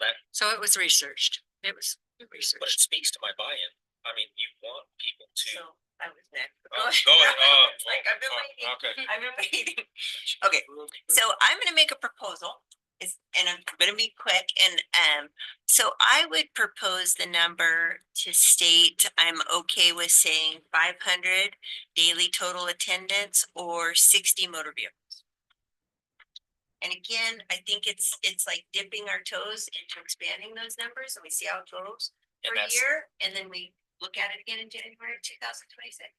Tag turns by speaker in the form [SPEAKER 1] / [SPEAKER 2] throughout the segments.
[SPEAKER 1] that,
[SPEAKER 2] So it was researched. It was
[SPEAKER 1] but it
[SPEAKER 2] researched.
[SPEAKER 1] speaks to my buy-in. I mean, you want people to.
[SPEAKER 3] So I was next.
[SPEAKER 1] Oh, go ahead. Oh,
[SPEAKER 3] It's Like I've been
[SPEAKER 1] oh,
[SPEAKER 3] waiting,
[SPEAKER 1] Okay.
[SPEAKER 3] I've been waiting. Okay, so I'm gonna make a proposal. It's, and I'm gonna be quick and, um, so I would propose the number to state, I'm okay with saying five hundred daily total attendance or sixty motor vehicles. And again, I think it's, it's like dipping our toes into expanding those numbers and we see how it goes
[SPEAKER 1] And
[SPEAKER 3] per
[SPEAKER 1] that's,
[SPEAKER 3] year. And then we look at it again in January two thousand twenty-six.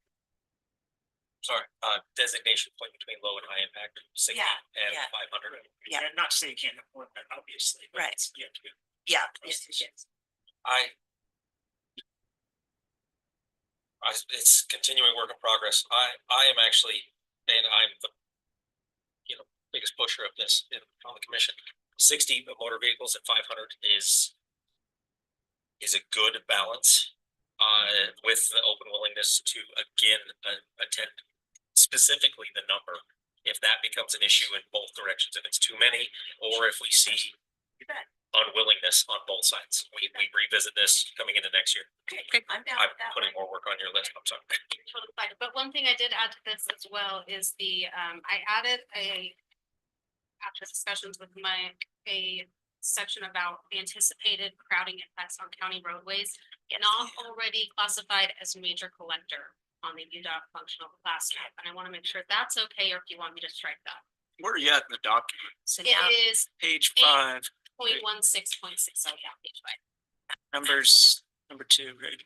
[SPEAKER 1] sorry, uh, designation point between low and high impact, sixty
[SPEAKER 3] Yeah,
[SPEAKER 1] and
[SPEAKER 3] yeah.
[SPEAKER 1] five hundred.
[SPEAKER 3] Yeah.
[SPEAKER 1] And not saying you can't afford that, obviously,
[SPEAKER 3] but Right.
[SPEAKER 1] you have to.
[SPEAKER 3] Yeah.
[SPEAKER 1] Yes, I. I, it's continuing work in progress. I, I am actually, and I'm the. You know, biggest pusher of this in, on the commission. Sixty motor vehicles at five hundred is. Is a good balance, uh, with the open willingness to again, uh, attend specifically the number. If that becomes an issue in both directions, if it's too many, or if we see unwillingness on both sides. We, we revisit this coming into next year.
[SPEAKER 3] I'm down
[SPEAKER 1] I'm
[SPEAKER 3] with that
[SPEAKER 1] putting more
[SPEAKER 3] one.
[SPEAKER 1] work on your list, I'm sorry.
[SPEAKER 4] totally fine. But one thing I did add to this as well is the, um, I added a. After discussions with Mike, a section about anticipated crowding effects on county roadways. Not already classified as major collector on the UDOT functional class map, and I wanna make sure that's okay, or if you want me to strike that.
[SPEAKER 5] Where are you at in the document?
[SPEAKER 3] So now,
[SPEAKER 4] It is
[SPEAKER 5] Page
[SPEAKER 3] Eh.
[SPEAKER 4] Eight.
[SPEAKER 5] five,
[SPEAKER 4] point one six point six, oh, I got page five.
[SPEAKER 5] numbers, number two, right?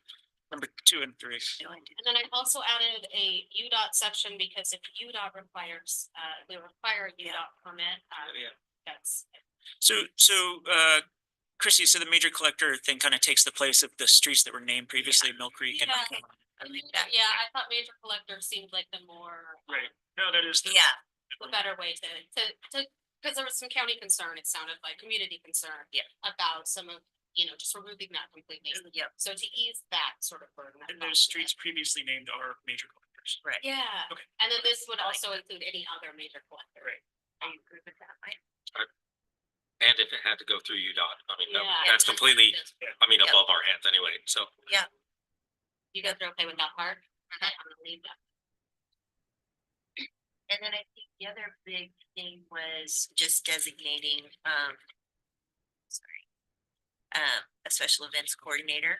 [SPEAKER 5] Number two and three.
[SPEAKER 4] And then I also added a UDOT section because if UDOT requires, uh, they require a UDOT permit, uh,
[SPEAKER 5] Yeah.
[SPEAKER 4] that's.
[SPEAKER 5] So, so, uh, Chrissy, so the major collector thing kind of takes the place of the streets that were named previously, Mill Creek and.
[SPEAKER 4] Yeah.
[SPEAKER 3] I like that.
[SPEAKER 4] Yeah, I thought major collector seemed like the more,
[SPEAKER 5] Right, no, that is.
[SPEAKER 3] yeah,
[SPEAKER 4] the better way to, to, to, because there was some county concern, it sounded like, community concern.
[SPEAKER 3] Yeah. Mm-hmm.
[SPEAKER 4] About some of, you know, just removing that completely.
[SPEAKER 3] yep,
[SPEAKER 4] So to ease that sort of burden. I
[SPEAKER 5] And
[SPEAKER 4] thought
[SPEAKER 5] those
[SPEAKER 4] that-
[SPEAKER 5] streets previously named are major collectors.
[SPEAKER 3] right.
[SPEAKER 4] Yeah,
[SPEAKER 5] Okay.
[SPEAKER 4] and then this would
[SPEAKER 3] I like
[SPEAKER 4] also include any other major collector.
[SPEAKER 5] Right.
[SPEAKER 3] Are you good with that, Mike?
[SPEAKER 1] And if it had to go through UDOT, I mean, that-
[SPEAKER 4] Yeah.
[SPEAKER 1] that's completely, I mean,
[SPEAKER 3] Yeah.
[SPEAKER 1] above our heads anyway, so.
[SPEAKER 4] You guys are okay with that part?
[SPEAKER 3] Mm-hmm.
[SPEAKER 4] Okay, I'm gonna leave that.
[SPEAKER 3] And then I think the other big thing was just designating, um. Sorry. Um, a special events coordinator.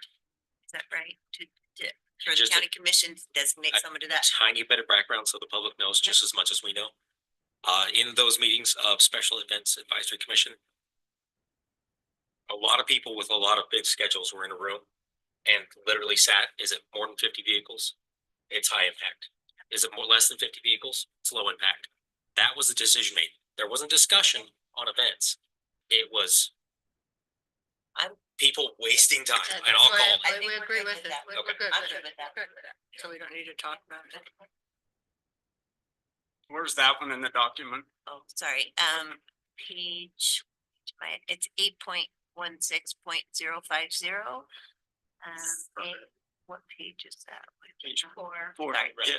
[SPEAKER 3] Is that right? To, to, for the
[SPEAKER 1] Just a-
[SPEAKER 3] county commission to designate
[SPEAKER 1] I-
[SPEAKER 3] someone to that.
[SPEAKER 1] Tiny bit of background, so the public knows just as much as we know. Uh, in those meetings of Special Events Advisory Commission. A lot of people with a lot of big schedules were in a room and literally sat, is it more than fifty vehicles? It's high impact. Is it more, less than fifty vehicles? It's low impact. That was the decision made. There wasn't discussion on events. It was.
[SPEAKER 3] I'm-
[SPEAKER 1] People wasting time
[SPEAKER 2] Yeah, that's
[SPEAKER 1] and I'll
[SPEAKER 2] why
[SPEAKER 1] call.
[SPEAKER 3] I
[SPEAKER 2] I-
[SPEAKER 3] think
[SPEAKER 2] We
[SPEAKER 3] we're
[SPEAKER 2] agree
[SPEAKER 3] good
[SPEAKER 2] with it.
[SPEAKER 3] with that.
[SPEAKER 2] We-
[SPEAKER 1] Okay.
[SPEAKER 2] We're good
[SPEAKER 3] I'm
[SPEAKER 2] with
[SPEAKER 3] good
[SPEAKER 2] it.
[SPEAKER 3] with that.
[SPEAKER 2] We're good with it. So we don't need to talk about it.
[SPEAKER 5] Where's that one in the document?
[SPEAKER 3] Oh, sorry, um, page, my, it's eight point one six point zero five zero. Um,
[SPEAKER 5] Okay.
[SPEAKER 3] eh, what page is that?
[SPEAKER 5] Page
[SPEAKER 3] four.
[SPEAKER 5] Four,
[SPEAKER 3] Sorry.
[SPEAKER 5] yeah.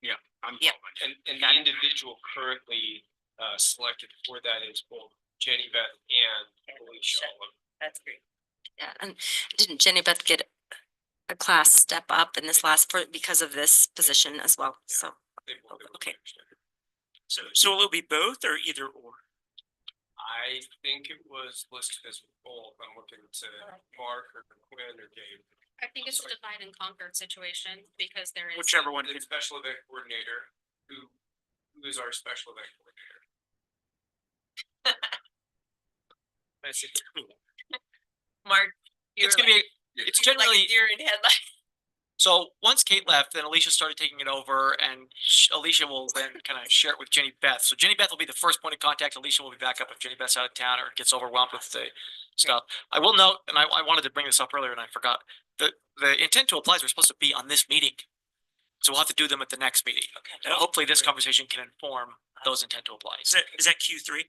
[SPEAKER 5] Yeah, I'm.
[SPEAKER 3] Yeah.
[SPEAKER 5] following.
[SPEAKER 6] And, and the individual currently, uh, selected for that is both Jenny Beth and Alicia Oliver.
[SPEAKER 3] That's great.
[SPEAKER 7] Yeah, and didn't Jenny Beth get a class step up in this last for, because of this position as well? So,
[SPEAKER 6] They both- they both
[SPEAKER 7] Okay.
[SPEAKER 6] understand.
[SPEAKER 5] So, so will it be both or either or?
[SPEAKER 6] I think it was listed as both. I'm looking to Mark or Quinn or Dave.
[SPEAKER 4] I think it's a divide and conquer situation because there is.
[SPEAKER 5] Whichever one.
[SPEAKER 6] The special event coordinator, who, who is our special event coordinator?
[SPEAKER 5] That's it.
[SPEAKER 3] Mark.
[SPEAKER 8] It's gonna be, it's generally,
[SPEAKER 3] Deer in headlights.
[SPEAKER 8] so once Kate left, then Alicia started taking it over and sh- Alicia will then kind of share it with Jenny Beth. So Jenny Beth will be the first point of contact. Alicia will be back up if Jenny Beth's out of town or gets overwhelmed with the stuff. I will note, and I, I wanted to bring this up earlier and I forgot, the, the intent to applies are supposed to be on this meeting. So we'll have to do them at the next meeting. And hopefully this conversation can inform
[SPEAKER 3] Uh-huh.
[SPEAKER 8] those intent to
[SPEAKER 5] Is
[SPEAKER 8] applies,
[SPEAKER 5] that, is that Q three?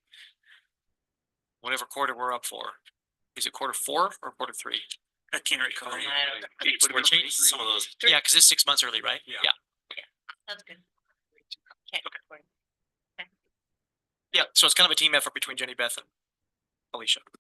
[SPEAKER 8] whatever quarter we're up for. Is it quarter four or quarter three?
[SPEAKER 5] I can't recall.
[SPEAKER 1] It's- We're changing some of those.
[SPEAKER 8] Yeah, because it's six months early, right?
[SPEAKER 5] Yeah.
[SPEAKER 3] Sounds good.
[SPEAKER 8] Yeah, so it's kind of a team effort between Jenny Beth and Alicia.